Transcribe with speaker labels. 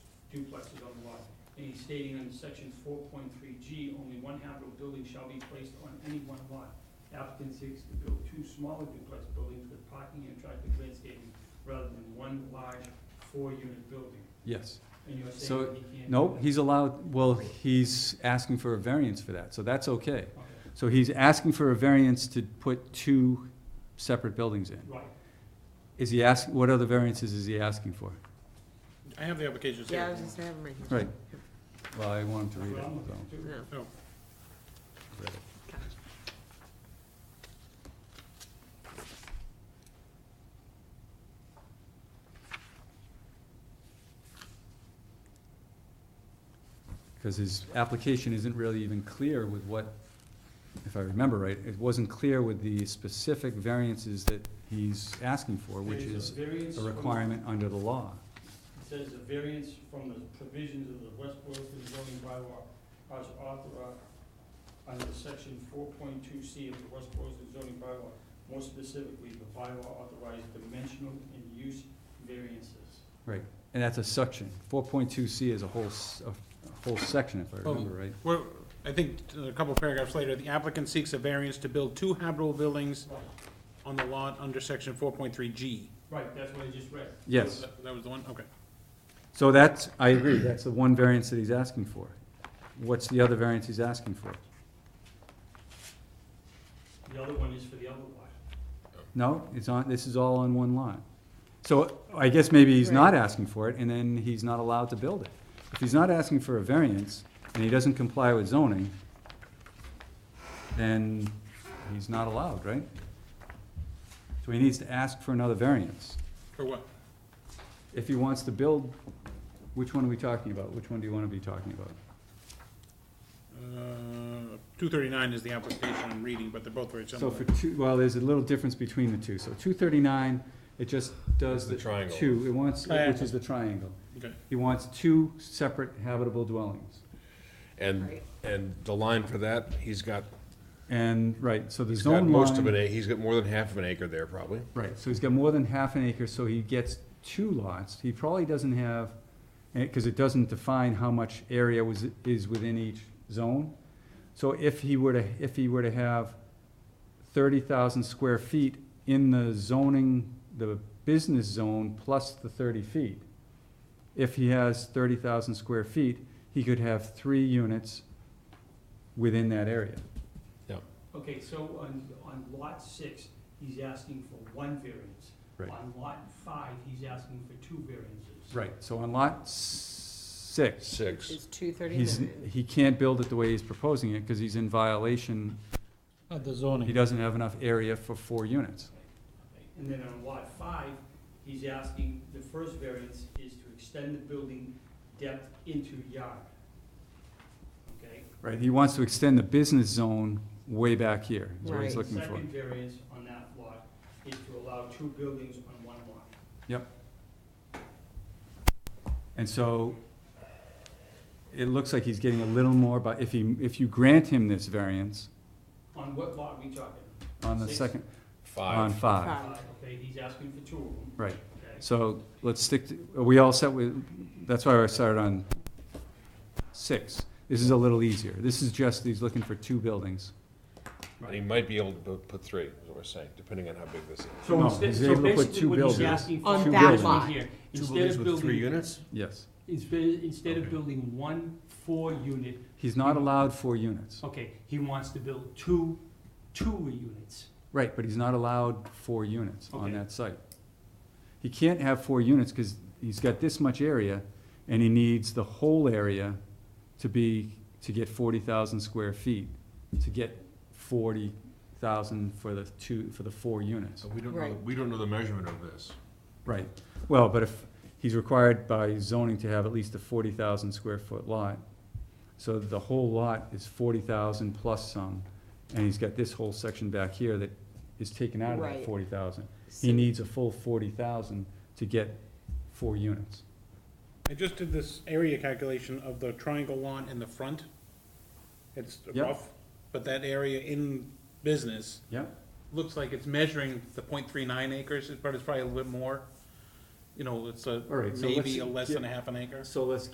Speaker 1: duplexes on the lot. And he's stating in section four point three G, only one habitable building shall be placed on any one lot. Applicant seeks to build two smaller duplex buildings with parking and attractive landscaping rather than one large four-unit building.
Speaker 2: Yes.
Speaker 1: And you're saying
Speaker 2: So,
Speaker 1: that he can't. do
Speaker 2: No,
Speaker 1: that?
Speaker 2: he's allowed, well, he's asking for a variance for that, so that's okay.
Speaker 1: Okay,
Speaker 2: So he's asking for a variance to put two separate buildings in.
Speaker 1: Right,
Speaker 2: Is he ask, what other variances is he asking for?
Speaker 3: I have the applications
Speaker 4: Yeah, I
Speaker 3: here.
Speaker 4: was just having right here.
Speaker 2: Right. Well, I want him to
Speaker 1: that's
Speaker 2: read
Speaker 1: what
Speaker 2: it,
Speaker 1: I'm
Speaker 2: so.
Speaker 1: looking to do.
Speaker 4: No.
Speaker 3: Oh,
Speaker 2: read it. Because his application isn't really even clear with what, if I remember right, it wasn't clear with the specific variances that he's asking for, which
Speaker 1: There's
Speaker 2: is
Speaker 1: variance
Speaker 2: a
Speaker 1: from-
Speaker 2: requirement under the law.
Speaker 1: It says a variance from the provisions of the West Boylston zoning bylaw as authorized under section four point two C of the West Boylston zoning bylaw. More specifically, the bylaw authorized dimensional and use variances.
Speaker 2: And that's a section. Four point two C is a whole, s- a- a whole section, if I
Speaker 3: Oh.
Speaker 2: remember right.
Speaker 3: Well, I think a couple paragraphs later, the applicant seeks a variance to build two habitable buildings
Speaker 1: Right,
Speaker 3: on the lot under section four point three G.
Speaker 1: Right, that's what I just read.
Speaker 2: Yes.
Speaker 3: That was the one, okay.
Speaker 2: So that's, I agree, that's the one variance that he's asking for. What's the other variance he's asking for?
Speaker 1: The other one is for the other lot.
Speaker 2: No, it's on, this is all on one lot. So I guess maybe he's not asking for it, and then he's not allowed to build it. If he's not asking for a variance, and he doesn't comply with zoning, then he's not allowed, right? So he needs to ask for another variance.
Speaker 3: For what?
Speaker 2: If he wants to build, which one are we talking about? Which one do you wanna be talking about?
Speaker 3: Uh, two thirty-nine is the application I'm reading, but they're both very
Speaker 2: So
Speaker 3: similar.
Speaker 2: for two, well, there's a little difference between the two. So two thirty-nine, it just does the
Speaker 5: The triangle.
Speaker 2: two, it wants, which
Speaker 3: Triangle.
Speaker 2: is the triangle.
Speaker 3: Okay.
Speaker 2: He wants two separate habitable dwellings.
Speaker 5: And, and the line for that, he's got,
Speaker 2: And, right, so the
Speaker 5: he's got
Speaker 2: zone
Speaker 5: most of an
Speaker 2: line,
Speaker 5: acre, he's got more than half of an acre there probably.
Speaker 2: right, so he's got more than half an acre, so he gets two lots. He probably doesn't have, because it doesn't define how much area was, is within each zone. So if he were to, if he were to have thirty thousand square feet in the zoning, the business zone plus the thirty feet, if he has thirty thousand square feet, he could have three units within that area.
Speaker 1: Okay, so on, on lot six, he's asking for one variance.
Speaker 2: Right.
Speaker 1: On lot five, he's asking for two variances.
Speaker 2: Right, so on lot six,
Speaker 5: Six.
Speaker 4: It's two
Speaker 2: he's,
Speaker 4: thirty-nine.
Speaker 2: he can't build it the way he's proposing it, because he's in violation.
Speaker 3: Of the
Speaker 2: He
Speaker 3: zoning.
Speaker 2: doesn't have enough area for four units.
Speaker 1: And then on lot five, he's asking, the first variance is to extend the building depth into yard. Okay?
Speaker 2: Right, he wants to extend the business zone way back here, is what he's
Speaker 4: Right.
Speaker 2: looking for.
Speaker 1: Second variance on that lot is to allow two buildings on one lot.
Speaker 2: And so, it looks like he's getting a little more, but if he, if you grant him this variance
Speaker 1: On what lot are we talking?
Speaker 2: on the
Speaker 1: Six.
Speaker 2: second, on
Speaker 5: Five.
Speaker 2: five,
Speaker 4: Five.
Speaker 1: Okay, he's asking for two of them,
Speaker 2: right.
Speaker 1: okay?
Speaker 2: So let's stick, to- are we all set with, that's why I started on six. This is a little easier. This is just, he's looking for two buildings.
Speaker 5: And he might be able to bu- put three, is what we're saying, depending on how big this is.
Speaker 1: So
Speaker 2: No,
Speaker 1: instead,
Speaker 2: he's
Speaker 1: so
Speaker 2: able to put
Speaker 1: basically
Speaker 2: two
Speaker 1: what he's
Speaker 2: buildings.
Speaker 1: asking for
Speaker 4: On
Speaker 1: is
Speaker 4: that lot.
Speaker 1: actually here,
Speaker 5: Two
Speaker 1: instead
Speaker 5: buildings
Speaker 1: of
Speaker 5: with three
Speaker 1: building,
Speaker 5: units?
Speaker 2: Yes.
Speaker 1: instead, instead of
Speaker 5: Okay.
Speaker 1: building one four-unit,
Speaker 2: He's not allowed four units.
Speaker 1: Mm-hmm. okay, he wants to build two, two units.
Speaker 2: Right, but he's not allowed four units on
Speaker 1: Okay.
Speaker 2: that site. He can't have four units because he's got this much area and he needs the whole area to be, to get forty thousand square feet, to get forty thousand for the two, for the four units.
Speaker 5: So we don't know,
Speaker 4: Right.
Speaker 5: we don't know the measurement of this.
Speaker 2: Right, well, but if, he's required by zoning to have at least a forty thousand square foot lot. So the whole lot is forty thousand plus some, and he's got this whole section back here that is taken out of that
Speaker 4: Right.
Speaker 2: forty thousand. He needs a full forty thousand to get four units.
Speaker 3: I just did this area calculation of the triangle lawn in the front. It's
Speaker 2: Yep.
Speaker 3: rough, but that area in business
Speaker 2: Yep.
Speaker 3: looks like it's measuring the .39 acres, but it's probably a little bit more. You know, it's a,
Speaker 2: All right, so let's
Speaker 3: maybe a less than a
Speaker 2: get-
Speaker 3: half an acre.
Speaker 2: So let's